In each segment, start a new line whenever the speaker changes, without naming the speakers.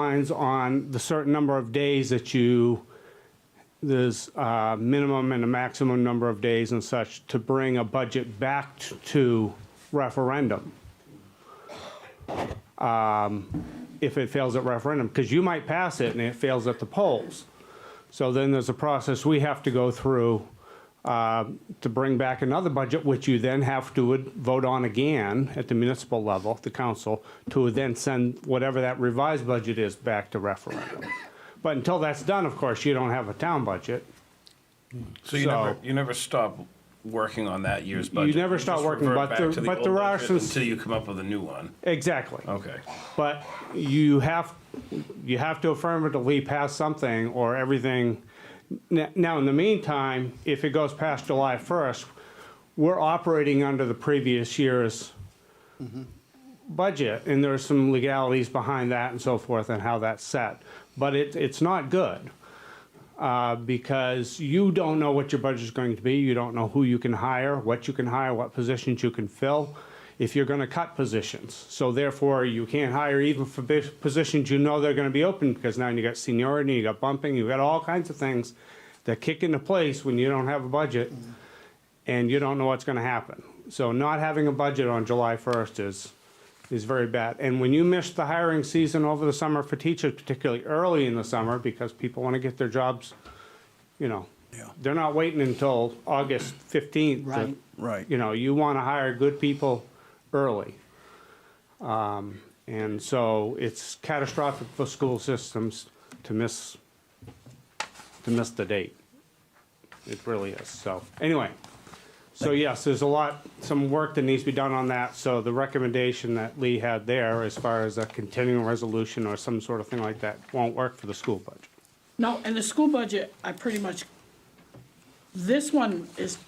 lines on the certain number of days that you, there's a minimum and a maximum number of days and such to bring a budget back t- to referendum. Um, If it fails at referendum, because you might pass it and it fails at the polls. So then there's a process we have to go through uh, to bring back another budget, which you then have to would vote on again at the municipal level, the council, to then send whatever that revised budget is back to referendum. But until that's done, of course, you don't have a town budget.
So you
So-
never, you never stop working on that year's
You
budget?
never stop
just
working,
revert
but
back
there-
to the
but
old
there are
budget
some-
Until you come up with a new one,
Exactly.
okay.
But you have, you have to affirmatively pass something or everything. N- Now, in the meantime, if it goes past July 1st, we're operating under the previous year's budget, and there's some legalities behind that and so forth and how that's set. But it, it's not good, uh, because you don't know what your budget's going to be, you don't know who you can hire, what you can hire, what positions you can fill, if you're gonna cut positions. So therefore, you can't hire even for bus- positions you know they're gonna be open, because now you got seniority, you got bumping, you got all kinds of things that kick into place when you don't have a budget, and you don't know what's gonna happen. So not having a budget on July first is, is very bad. And when you miss the hiring season over the summer for teachers, particularly early in the summer, because people want to get their jobs, you know, they're not waiting until August 15th. to-
Right.
Right.
You know, you want to hire good people early. Um, And so it's catastrophic for school systems to miss, to miss the date. It really is. So anyway, so yes, there's a lot, some work that needs to be done on that. So the recommendation that Lee had there as far as a continuing resolution or some sort of thing like that won't work for the school budget.
No, and the school budget, I pretty much, this one is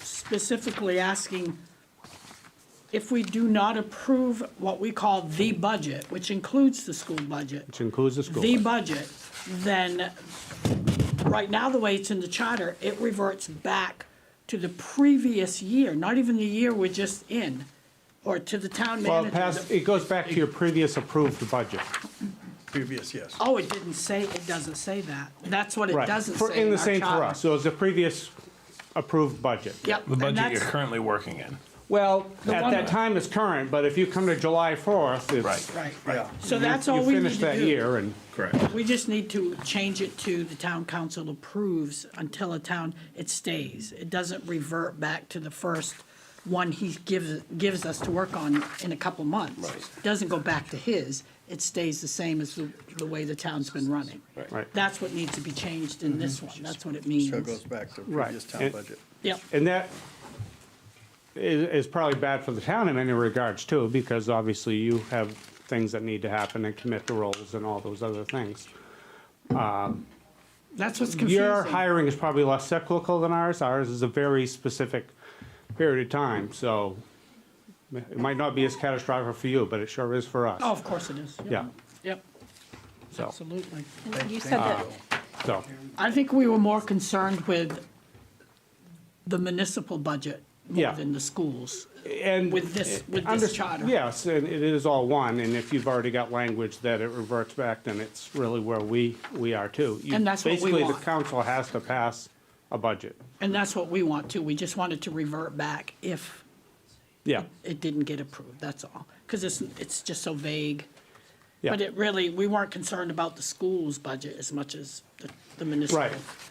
specifically asking if we do not approve what we call the budget, which includes the school budget,
Which includes the school.
the
budget.
budget, then, right now, the way it's in the charter, it reverts back to the previous year, not even the year we're just in, or to the town
Well,
manager.
it pass- it goes back to your previous approved budget.
Previous, yes.
Oh, it didn't say, it doesn't say that. That's what it
Right.
doesn't
For-
say
And
in
the
our
same for
charter.
us. So it's the previous approved budget.
Yep.
The
and
budget you're
that's-
currently working in.
Well,
The
at
one-
that time it's current, but if you come to July 4th, it's.
Right.
Right,
Yeah.
so
you-
that's all we
You
need
finish
to
that
do.
year and.
Correct.
We just need to change it to the town council approves until a town, it stays. It doesn't revert back to the first one he gives, gives us to work on in a couple months.
Right.
Doesn't go back to his, it stays the same as the, the way the town's been running.
Right.
That's what needs to be changed in this one, that's what it means.
So it goes back to
Right.
previous town
And-
budget.
Yep,
And that is, is probably bad for the town in many regards too, because obviously you have things that need to happen and commit the roles and all those other things.
that's what's confusing.
Your hiring is probably less cyclical than ours. Ours is a very specific period of time, so it might not be as catastrophic for you, but it sure is for us.
Oh, of course it is. Yep.
Yeah,
Yep,
so,
absolutely.
You said that,
so,
I think we were more concerned with the municipal budget more
Yeah.
than the schools.
and.
With this- with this
Under-
charter.
Yes, and it is all one, and if you've already got language that it reverts back, then it's really where we, we are too. You-
And that's what we
Basically, the
want.
council has to pass a budget.
And that's what we want to, we just wanted to revert back if
Yeah,
it didn't get approved, that's all. Because it's, it's just so vague.
yeah.
But it really, we weren't concerned about the school's budget as much as the- the
Right,
municipal.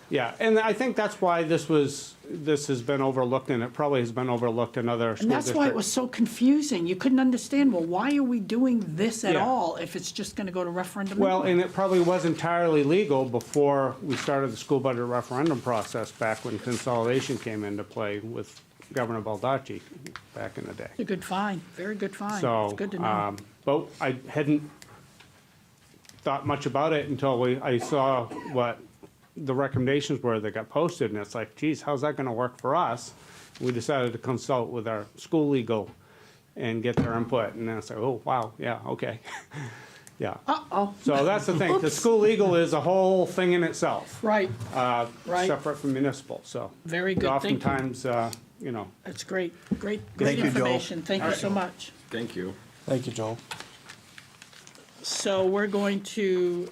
yeah, and I think that's why this was, this has been overlooked, and it probably has been overlooked in other school
And
districts.
that's why it was so confusing, you couldn't understand, well, why are we doing this at
Yeah.
all if it's just gonna go to referendum?
Well,
anyway?
and it probably was entirely legal before we started the school budget referendum process back when consolidation came into play with Governor Baldacci back in the day.
It's a good find, very good find,
So,
it's good to know.
um, but I hadn't thought much about it until we, I saw what the recommendations were that got posted, and it's like, geez, how's that gonna work for us? We decided to consult with our school legal and get their input, and then I said, oh, wow, yeah, okay. Yeah.
Uh-oh,
So that's the thing, the school legal is a whole thing in itself,
right,
uh,
Right.
separate from municipal, so.
Very good, thank you.
Oftentimes, uh, you know,
That's great, great, great
Thank you, Joel.
information. Thank you so much.
Thank you.
Thank you, Joel.
So we're going to